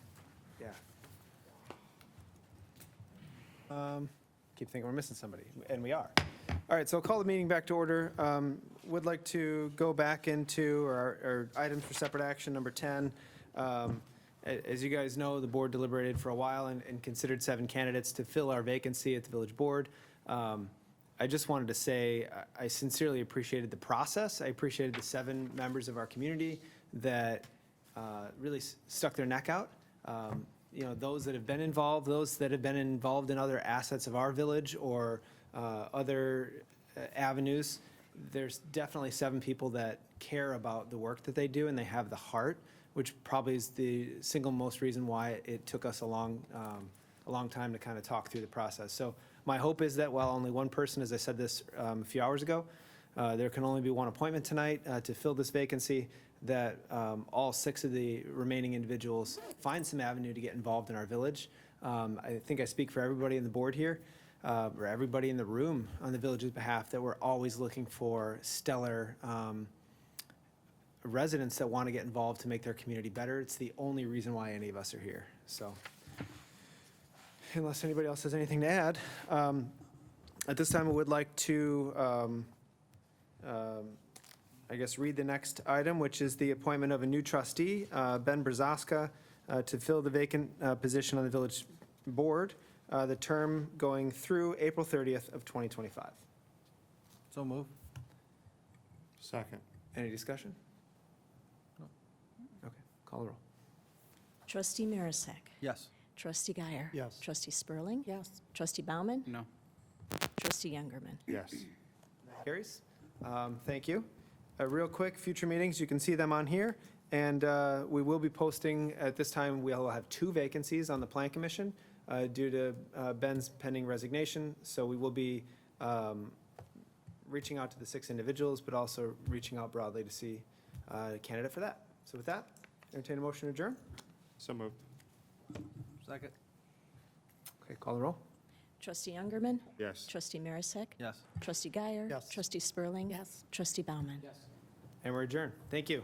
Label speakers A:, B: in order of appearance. A: yeah. Um, Keep thinking we're missing somebody, and we are. All right, so I'll call the meeting back to order. Um, Would like to go back into our our items for separate action, number 10. Um, a- As you guys know, the board deliberated for a while and and considered seven candidates to fill our vacancy at the village board. Um, I just wanted to say, I- I sincerely appreciated the process. I appreciated the seven members of our community that uh, really s- stuck their neck out. Um, You know, those that have been involved, those that have been involved in other assets of our village or uh, other uh, avenues. There's definitely seven people that care about the work that they do and they have the heart, which probably is the single most reason why it took us a long, um, a long time to kind of talk through the process. So my hope is that while only one person, as I said this um, a few hours ago, uh, there can only be one appointment tonight uh, to fill this vacancy, that um, all six of the remaining individuals find some avenue to get involved in our village. Um, I think I speak for everybody on the board here, uh, or everybody in the room on the village's behalf, that we're always looking for stellar um, residents that want to get involved to make their community better. It's the only reason why any of us are here. So unless anybody else has anything to add, um, at this time, I would like to um, um, I guess, read the next item, which is the appointment of a new trustee, uh, Ben Brazaska, uh, to fill the vacant uh, position on the village board, uh, the term going through April 30th of 2025.
B: So move.
C: Second.
A: Any discussion?
B: No.
A: Okay, call the roll.
D: Trustee Marisak.
B: Yes.
D: Trustee Guyer.
C: Yes.
D: Trustee Spurling.
E: Yes.
D: Trustee Bauman.
B: No.
D: Trustee Youngerman.
C: Yes.
A: Carries. Um, Thank you. Uh, Real quick, future meetings, you can see them on here. And uh, we will be posting, at this time, we'll have two vacancies on the Plan Commission uh, due to uh, Ben's pending resignation. So we will be um, reaching out to the six individuals, but also reaching out broadly to see uh, a candidate for that. So with that, entertain a motion to adjourn.
C: So moved.
B: Second.
A: Okay, call the roll.
D: Trustee Youngerman.
C: Yes.
D: Trustee Marisak.
B: Yes.
D: Trustee Guyer.
C: Yes.
D: Trustee Spurling.
E: Yes.
D: Trustee Bauman.
B: Yes.
A: And we're adjourned. Thank you.